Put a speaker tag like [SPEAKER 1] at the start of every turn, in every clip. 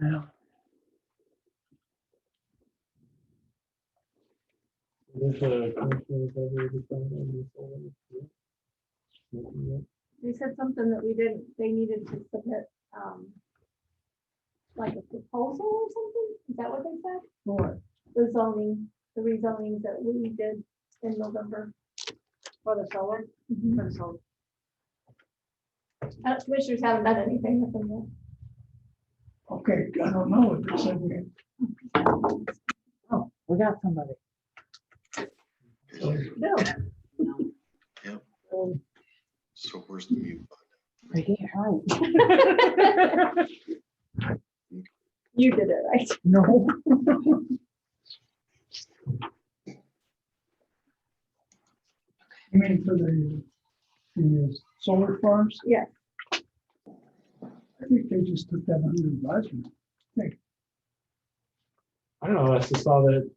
[SPEAKER 1] Yeah.
[SPEAKER 2] There's a commissioner's letter to sign on this one, yeah. Nothing yet.
[SPEAKER 3] They said something that we didn't, they needed to submit, um, like a proposal or something, is that what they said? Or the zoning, the rezoning that we did in November. Mm-hmm.
[SPEAKER 4] For the solar, for the solar.
[SPEAKER 3] Uh, Commissioners haven't done anything with them yet.
[SPEAKER 1] Okay, I don't know. if there's any-
[SPEAKER 5] Oh, we got somebody.
[SPEAKER 3] No.
[SPEAKER 6] So where's the mute button?
[SPEAKER 5] Right here.
[SPEAKER 3] You did it, right?
[SPEAKER 5] No.
[SPEAKER 1] You mean for the, the solar farms?
[SPEAKER 3] Yeah.
[SPEAKER 1] I think they just took that under advisement.
[SPEAKER 2] I don't know, I just saw that.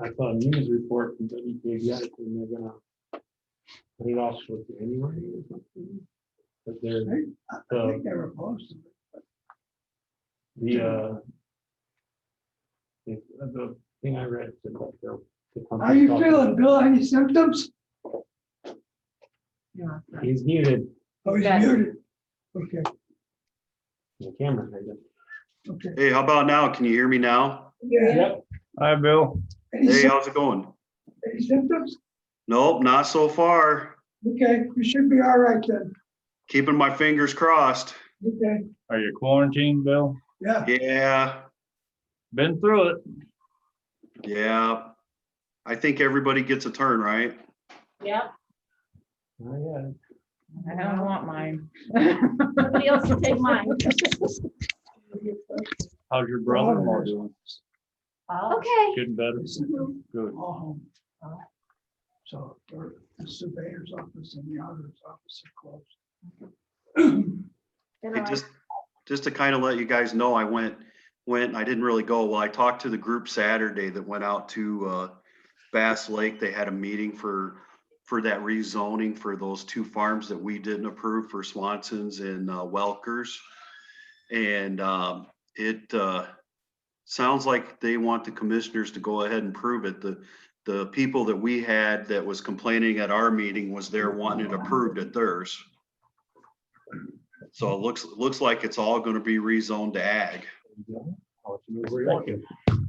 [SPEAKER 2] I saw a news report from WKBX and they're gonna. Put it off with January or something. But they're,
[SPEAKER 1] I I think they were opposed. to it.
[SPEAKER 2] the, uh. The, the thing I read. said that they'll- the
[SPEAKER 1] How you
[SPEAKER 2] company's-
[SPEAKER 1] feeling, Bill? Any symptoms?
[SPEAKER 5] Yeah.
[SPEAKER 2] He's muted,
[SPEAKER 1] Oh, he's
[SPEAKER 5] Yes.
[SPEAKER 1] muted. Okay,
[SPEAKER 2] the camera, I guess.
[SPEAKER 1] okay.
[SPEAKER 6] Hey, how about now? Can you hear me now?
[SPEAKER 2] Yep.
[SPEAKER 7] Hi, Bill.
[SPEAKER 1] Any
[SPEAKER 6] Hey,
[SPEAKER 1] sym-
[SPEAKER 6] how's it going?
[SPEAKER 1] any symptoms?
[SPEAKER 6] Nope, not so far.
[SPEAKER 1] Okay, you should be all right then.
[SPEAKER 6] Keeping my fingers crossed.
[SPEAKER 1] Okay,
[SPEAKER 7] Are you quarantined, Bill?
[SPEAKER 1] yeah.
[SPEAKER 6] Yeah,
[SPEAKER 7] Been through it.
[SPEAKER 6] yeah. I think everybody gets a turn, right?
[SPEAKER 5] Yep.
[SPEAKER 2] Oh, yeah.
[SPEAKER 5] I don't want mine.
[SPEAKER 3] Somebody else will take mine.
[SPEAKER 7] How's your brother-in-law doing?
[SPEAKER 3] Okay.
[SPEAKER 7] Getting better?
[SPEAKER 1] All
[SPEAKER 7] Good.
[SPEAKER 1] home. So or the surveyor's office and the auditor's office are closed.
[SPEAKER 3] And
[SPEAKER 6] Hey,
[SPEAKER 3] I'm
[SPEAKER 6] just, just to kind of let you guys know, I went, went, I didn't really go. Well, I talked to the group Saturday that went out to uh, Bass Lake. They had a meeting for, for that rezoning for those two farms that we didn't approve for Swanson's and uh, Welkers. And um, it uh, sounds like they want the commissioners to go ahead and prove it. The, the people that we had that was complaining at our meeting was there wanting it approved at theirs. So it looks, looks like it's all gonna be rezoned to ag.
[SPEAKER 2] I'll let you know where you want.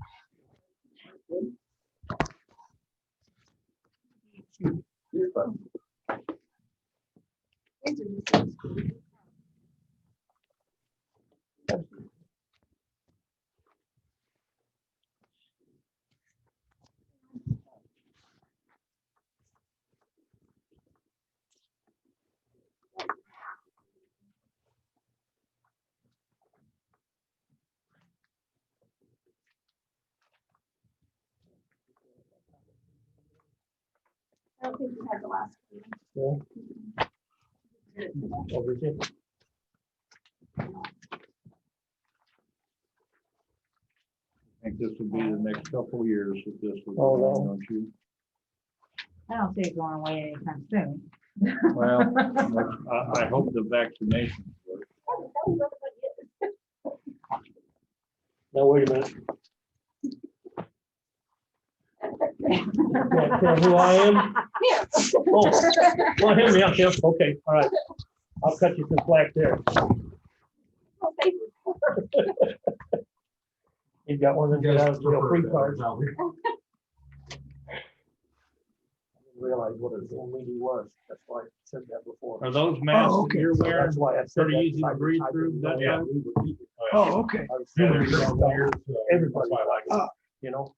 [SPEAKER 3] I don't think we had the last one.
[SPEAKER 2] Over here.
[SPEAKER 7] I think this will be the next couple of years if this was.
[SPEAKER 2] Oh, no.
[SPEAKER 7] don't you?
[SPEAKER 5] I don't see it going away anytime soon.
[SPEAKER 7] Well, I, I hope the vaccination. works.
[SPEAKER 3] Oh, that was everybody.
[SPEAKER 2] Now, wait a minute. Yeah, yeah, Who I am?
[SPEAKER 3] Yeah.
[SPEAKER 2] Oh, well, hear me out, Kim. Okay, all right. I'll cut you some slack there.
[SPEAKER 3] Oh, thank
[SPEAKER 2] You've got one of them get out of jail free cards. I didn't Realize what a Zoom meeting was. That's why I said that before.
[SPEAKER 7] Are those masks
[SPEAKER 1] Oh, okay.
[SPEAKER 7] that you're
[SPEAKER 2] So
[SPEAKER 7] wearing?
[SPEAKER 2] That's why I said.
[SPEAKER 7] Pretty
[SPEAKER 2] that,
[SPEAKER 7] easy to
[SPEAKER 2] because I-
[SPEAKER 7] breathe
[SPEAKER 2] I
[SPEAKER 7] through,
[SPEAKER 2] didn't
[SPEAKER 7] that
[SPEAKER 2] know
[SPEAKER 7] time?
[SPEAKER 2] we would keep it.
[SPEAKER 1] Oh, okay.
[SPEAKER 2] I was saying
[SPEAKER 7] There's
[SPEAKER 2] that,
[SPEAKER 7] something here, so
[SPEAKER 2] Everybody,
[SPEAKER 7] uh, that's why I like
[SPEAKER 1] Ah.
[SPEAKER 7] it.
[SPEAKER 2] you know,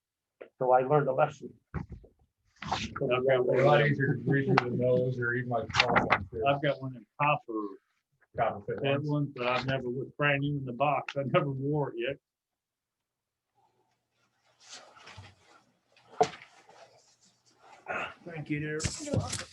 [SPEAKER 2] so I learned a lesson.
[SPEAKER 7] Oh. A lot easier to breathe through the nose or even like. I've got one in copper. Copper. That one, but I've never, was brand new in the box. I never wore it yet. Thank you, dear.
[SPEAKER 3] you.